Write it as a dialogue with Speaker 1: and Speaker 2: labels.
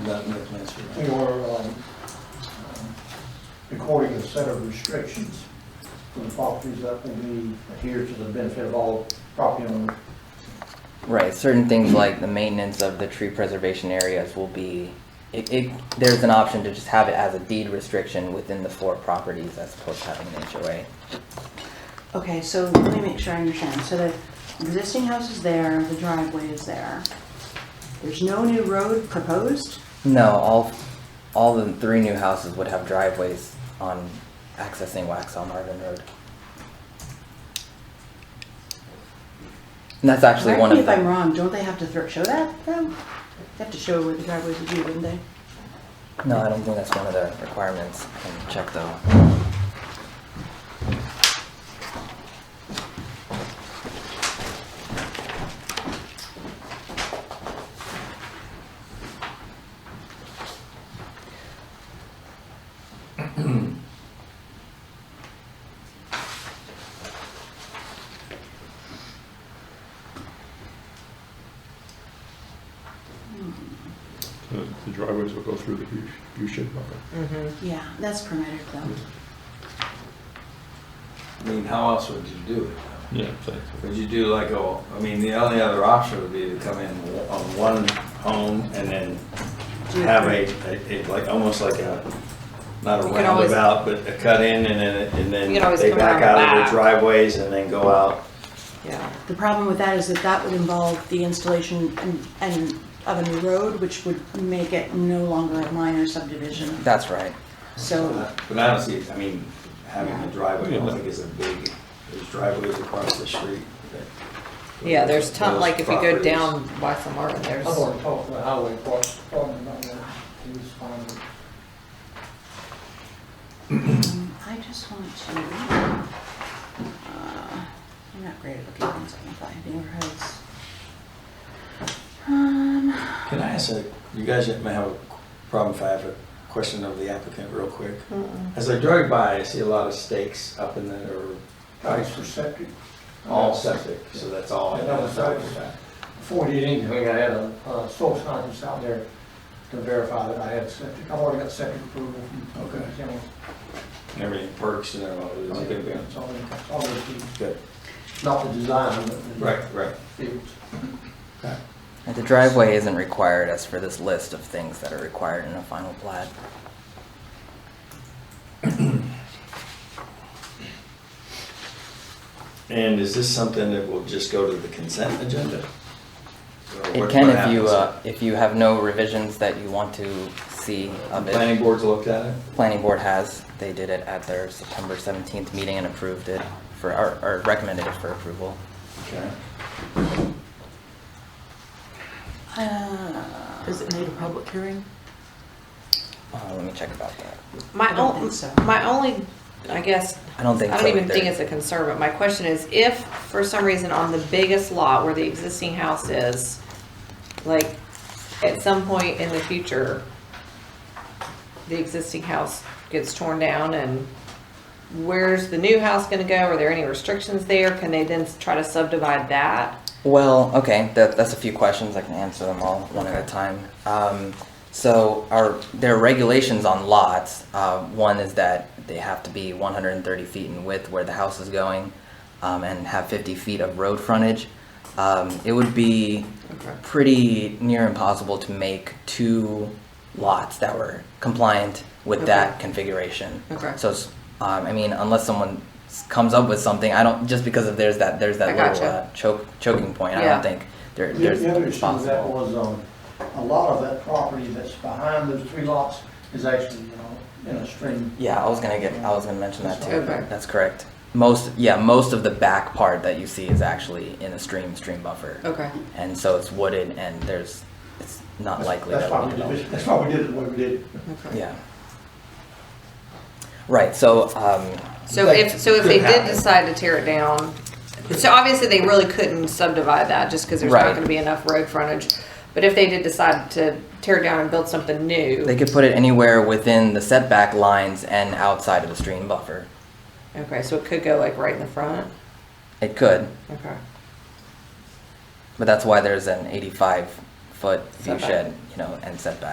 Speaker 1: Without no plans for
Speaker 2: they
Speaker 1: that.
Speaker 2: are um, um, recording a set of restrictions for the properties that will be adhered to the benefit of all property owners.
Speaker 3: Right, certain things like the maintenance of the tree preservation areas will be, it, it, there's an option to just have it as a deed restriction within the four properties as opposed to having an HOA.
Speaker 4: Okay, so let me make sure I understand. So the existing house is there, the driveway is there. There's no new road proposed?
Speaker 3: No, all, all the three new houses would have driveways on accessing Waxaw Marvin Road. And that's actually
Speaker 4: Correct
Speaker 3: one
Speaker 4: me
Speaker 3: of
Speaker 4: if I'm
Speaker 3: them.
Speaker 4: wrong, don't they have to thro- show that though? They have to show where the driveways would be, wouldn't they?
Speaker 3: No, I don't think that's one of the requirements. I can check though.
Speaker 5: The the driveways will go through the U- U-shaped buffer.
Speaker 4: Yeah, that's permitted though.
Speaker 1: I mean, how else would you do it?
Speaker 5: Yeah, thanks.
Speaker 1: Would you do like a, I mean, the only other option would be to come in on one home and then
Speaker 4: Do you
Speaker 1: have a,
Speaker 4: agree?
Speaker 1: a- a- like, almost like a, not a
Speaker 6: You could always-
Speaker 1: roundabout, but a cut in and then, it- and
Speaker 6: You could
Speaker 1: then
Speaker 6: always
Speaker 1: they
Speaker 6: come
Speaker 1: back
Speaker 6: around
Speaker 1: out of
Speaker 6: back.
Speaker 1: the driveways and then go out.
Speaker 6: Yeah,
Speaker 4: The problem with that is that that would involve the installation and, and of a new road, which would make it no longer a minor subdivision.
Speaker 3: That's right.
Speaker 4: So,
Speaker 1: But I don't see, I mean, having a driveway, I don't
Speaker 5: Yeah.
Speaker 1: think is a big, there's driveways across the street. that-
Speaker 6: yeah, there's ton,
Speaker 1: those
Speaker 6: like if you go
Speaker 1: properties.
Speaker 6: down Waxaw Marvin,
Speaker 2: I've
Speaker 6: there's,
Speaker 2: already talked to the highway department, department about that. He was fine with it.
Speaker 4: um, I just want to, uh, I'm not great at looking things up by neighborhoods. Um,
Speaker 1: Can I ask a, you guys may have a problem if I have a question of the applicant real quick. As I drive by, I see a lot of stakes up in there, or
Speaker 2: Guys for septic.
Speaker 1: all septic, so that's all.
Speaker 2: Yeah, that was right. Before we did anything, I had a a soil scientist out there to verify that I had septic. I've already got septic approval from
Speaker 1: Okay.
Speaker 2: the county.
Speaker 1: And Everything perks and everything. it's a big deal.
Speaker 2: It's all, it's all the-
Speaker 1: Good,
Speaker 2: not the design, but the.
Speaker 1: right, right.
Speaker 2: fields.
Speaker 3: Like, The driveway isn't required as for this list of things that are required in a final plat.
Speaker 1: And is this something that will just go to the consent agenda? Or
Speaker 3: It
Speaker 1: what-
Speaker 3: can
Speaker 1: what
Speaker 3: if you,
Speaker 1: happens?
Speaker 3: uh, if you have no revisions that you want to see of
Speaker 1: Planning
Speaker 3: it.
Speaker 1: boards looked at it?
Speaker 3: Planning board has, they did it at their September seventeenth meeting and approved it for, or, or recommended it for approval.
Speaker 1: Okay.
Speaker 4: uh,
Speaker 6: is it need a public hearing?
Speaker 3: Uh, let me check about that.
Speaker 6: My
Speaker 4: I don't
Speaker 6: only,
Speaker 4: think so.
Speaker 6: my only, I guess,
Speaker 3: I don't think
Speaker 6: I
Speaker 3: so
Speaker 6: don't even
Speaker 3: either.
Speaker 6: think it's a concern, but my question is if for some reason on the biggest lot where the existing house is, like at some point in the future, the existing house gets torn down and where's the new house gonna go? Are there any restrictions there? Can they then try to subdivide that?
Speaker 3: Well, okay, that, that's a few questions. I can answer them all one at a time. Um, so our, there are regulations on lots. Uh, one is that they have to be 130 feet in width where the house is going um, and have 50 feet of road frontage. Um, it would be
Speaker 6: Okay.
Speaker 3: pretty near impossible to make two lots that were compliant with that
Speaker 6: Okay.
Speaker 3: configuration.
Speaker 6: Okay.
Speaker 3: So, it's, um, I mean, unless someone s- comes up with something, I don't, just because of there's that, there's that
Speaker 6: I
Speaker 3: little
Speaker 6: gotcha.
Speaker 3: uh, choke, choking point. I
Speaker 6: Yeah.
Speaker 3: don't think there,
Speaker 2: The
Speaker 3: there's
Speaker 2: the other issue with that
Speaker 3: possible.
Speaker 2: was, um, a lot of that property that's behind those three lots is actually, you know, in a stream.
Speaker 3: Yeah, I was gonna get, I was gonna mention that too.
Speaker 6: Okay.
Speaker 3: That's correct. Most, yeah, most of the back part that you see is actually in a stream, stream buffer.
Speaker 6: Okay.
Speaker 3: And so it's wooded and there's, it's not likely
Speaker 2: That's
Speaker 3: that
Speaker 2: why we
Speaker 3: we
Speaker 2: did, it.
Speaker 3: develop.
Speaker 2: that's why we did it the way we did. it.
Speaker 6: Okay.
Speaker 3: Yeah. Right, so, um,
Speaker 6: So
Speaker 1: Like,
Speaker 6: if, so if
Speaker 1: could
Speaker 6: they did
Speaker 1: happen.
Speaker 6: decide to tear it down, so obviously they really couldn't subdivide that just because there's
Speaker 3: Right.
Speaker 6: not gonna be enough road frontage. But if they did decide to tear it down and build something
Speaker 3: They
Speaker 6: new,
Speaker 3: could put it anywhere within the setback lines and outside of the stream buffer.
Speaker 6: okay, so it could go like right in the front?
Speaker 3: It could,
Speaker 6: Okay,
Speaker 3: but that's why there's an eighty-five foot view
Speaker 6: Setback.
Speaker 3: shed, you know, and setback.